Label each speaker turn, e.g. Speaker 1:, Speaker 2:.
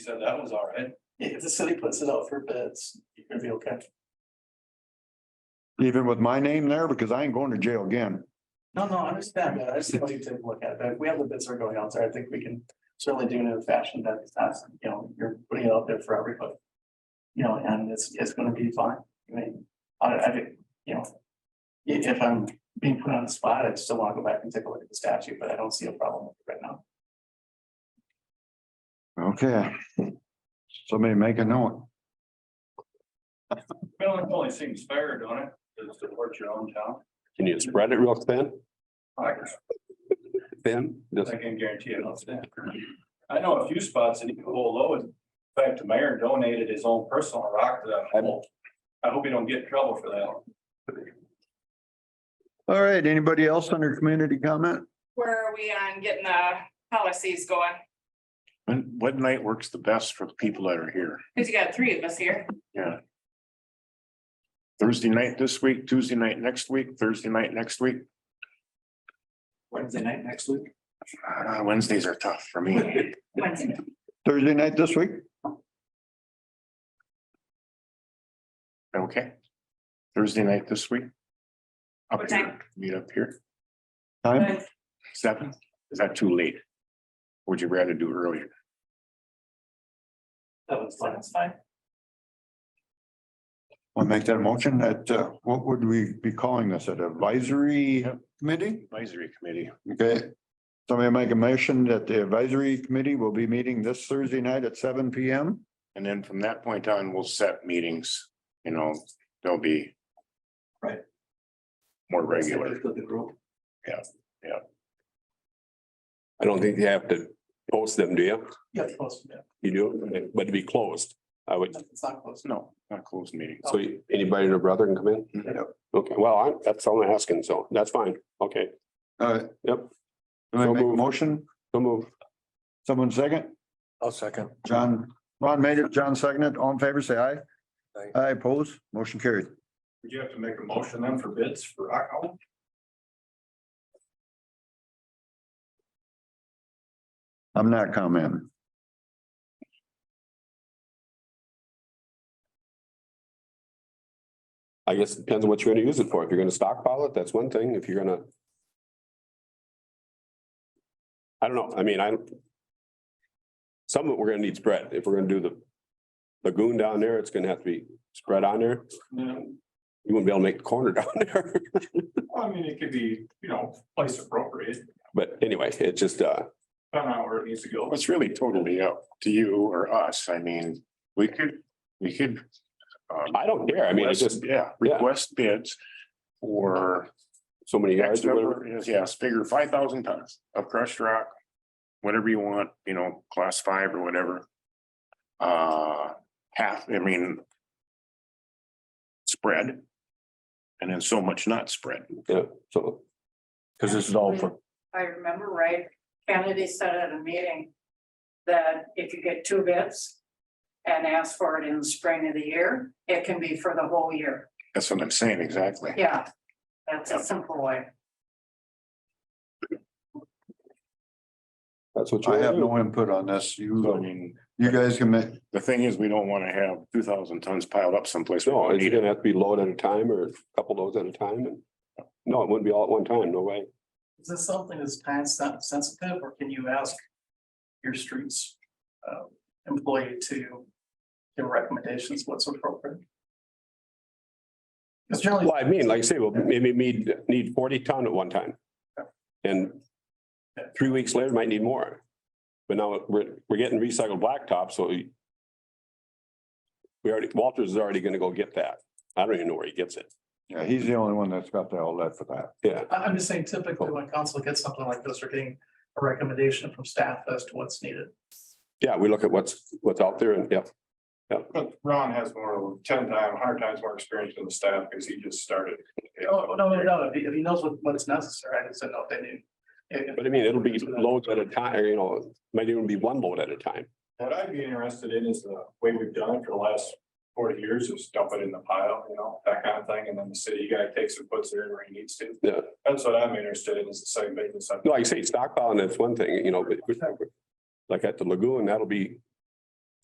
Speaker 1: said that was all right.
Speaker 2: If the city puts it out for bids, you're gonna be okay.
Speaker 3: Even with my name there, because I ain't going to jail again.
Speaker 2: No, no, I understand that. I just want you to take a look at that. We have the bids that are going out there. I think we can certainly do it in a fashion that it's not, you know, you're putting it out there for everybody. You know, and it's, it's gonna be fine. I mean, I, I think, you know. i- If, I'm being put on the spot, I still wanna go back and take a look at the statute, but I don't see a problem with it right now.
Speaker 3: Okay. Somebody make a note.
Speaker 1: Well, it only seems fair, don't it? To support your own town.
Speaker 4: Can you spread it real thin,
Speaker 1: I
Speaker 4: thin? Just,
Speaker 1: I can guarantee it, I'll stand. I know a few spots in Eagle Low, in fact, the mayor donated his own personal rock to that hole. I hope you don't get in trouble for that.
Speaker 3: All right, anybody else under community comment?
Speaker 5: Where are we on getting the policies going?
Speaker 6: And what night works the best for the people that are here?
Speaker 5: Cause you got three of us here.
Speaker 6: Thursday night this week, Tuesday night next week, Thursday night next week.
Speaker 2: Wednesday night next week.
Speaker 6: Ah, Wednesdays are tough for me.
Speaker 5: Wednesday.
Speaker 3: Thursday night this week?
Speaker 6: Okay. Thursday night this week. Up
Speaker 5: What
Speaker 6: here, meet up here.
Speaker 3: Time?
Speaker 6: Seven? Is that too late? Would you rather do earlier?
Speaker 2: That was fine. That's fine.
Speaker 3: I'll make that motion that, uh, what would we be calling this, an advisory committee?
Speaker 6: Advisory committee.
Speaker 3: Okay. Somebody make a motion that the advisory committee will be meeting this Thursday night at seven P M.
Speaker 6: And then from that point on, we'll set meetings, you know, they'll be.
Speaker 2: Right.
Speaker 6: More regular.
Speaker 2: With the group.
Speaker 4: I don't think you have to post them, do you?
Speaker 2: Yeah, it's close. Yeah,
Speaker 4: You do, but to be closed, I would,
Speaker 2: it's not close.
Speaker 6: No, not closed meetings.
Speaker 4: so anybody and their brother can come in?
Speaker 7: Mm-hmm.
Speaker 3: Yep.
Speaker 4: Okay, well, I, that's all I'm asking, so that's fine, okay,
Speaker 3: All right.
Speaker 4: Yep.
Speaker 3: Uh, Somebody make a motion?
Speaker 4: so move.
Speaker 3: Someone second?
Speaker 7: I'll second.
Speaker 3: John, Ron made it, John seconded, all in favor, say aye. Aye, opposed, motion carried.
Speaker 1: Would you have to make a motion then for bids for rock hole?
Speaker 3: I'm not commenting.
Speaker 4: I guess it depends on what you're gonna use it for. If you're gonna stockpile it, that's one thing. If you're gonna. I don't know. I mean, I'm. Some of it we're gonna need spread. If we're gonna do the lagoon down there, it's gonna have to be spread on there.
Speaker 1: No,
Speaker 4: You wouldn't be able to make the corner down there.
Speaker 1: I mean, it could be, you know, place appropriate,
Speaker 4: But anyway, it just, uh,
Speaker 1: depending on where it needs to go.
Speaker 6: Well, It's really totally up to you or us. I mean, we could, we could. um,
Speaker 4: I don't care. I mean, it's
Speaker 6: request-
Speaker 4: just
Speaker 6: Yeah,
Speaker 4: yeah.
Speaker 6: request bids for
Speaker 4: so many
Speaker 6: X
Speaker 4: yards or whatever.
Speaker 6: number, yes, figure five thousand tons of crushed rock. Whatever you want, you know, class five or whatever. Uh, half, I mean. Spread. And then so much not spread.
Speaker 4: Yeah, so
Speaker 7: Cause this is all for,
Speaker 8: if I remember right, Kennedy said at a meeting that if you get two bids and ask for it in the spring of the year, it can be for the whole year.
Speaker 6: That's what I'm saying, exactly.
Speaker 8: Yeah, that's a simple way.
Speaker 4: that's what you.
Speaker 3: I have
Speaker 4: wanna do.
Speaker 3: no input on this.
Speaker 6: So, I
Speaker 3: You,
Speaker 6: mean,
Speaker 3: you guys can make,
Speaker 6: the thing is, we don't want to have two thousand tons piled up someplace. we
Speaker 4: No,
Speaker 6: don't
Speaker 4: it's
Speaker 6: need it.
Speaker 4: gonna have to be load at a time or a couple loads at a time and. No, it wouldn't be all at one time, no way.
Speaker 2: Is this something that's time sen- sensitive, or can you ask your streets um, employee to give recommendations what's appropriate? Because generally,
Speaker 4: Well, I mean, like I say, we'll maybe need, need forty ton at one time. And three weeks later, might need more. But now we're, we're getting recycled blacktop, so we we already, Walters is already gonna go get that. I don't even know where he gets it.
Speaker 3: yeah, he's the only one that's got the outlet for that.
Speaker 4: Yeah,
Speaker 2: I- I'm just saying typically when council gets something like this, they're getting a recommendation from staff as to what's needed.
Speaker 4: yeah, we look at what's, what's out there and, yeah.
Speaker 1: But Ron has more, ten times, hundred times more experience than the staff because he just started.
Speaker 2: Oh, no, no, no, if he- if he knows what, what is necessary, I just don't know if they knew. If-
Speaker 4: But I mean, it'll be loads at a time, or, you know, might even be one load at a time.
Speaker 1: What I'd be interested in is the way we've done it for the last forty years is dump it in the pile, you know, that kind of thing, and then the city guy takes and puts it in where he needs to.
Speaker 4: Yeah.
Speaker 1: That's what I'm interested in is the same thing as.
Speaker 4: No, Like I say, stockpiling, that's one thing, you know, but. Like at the lagoon, that'll be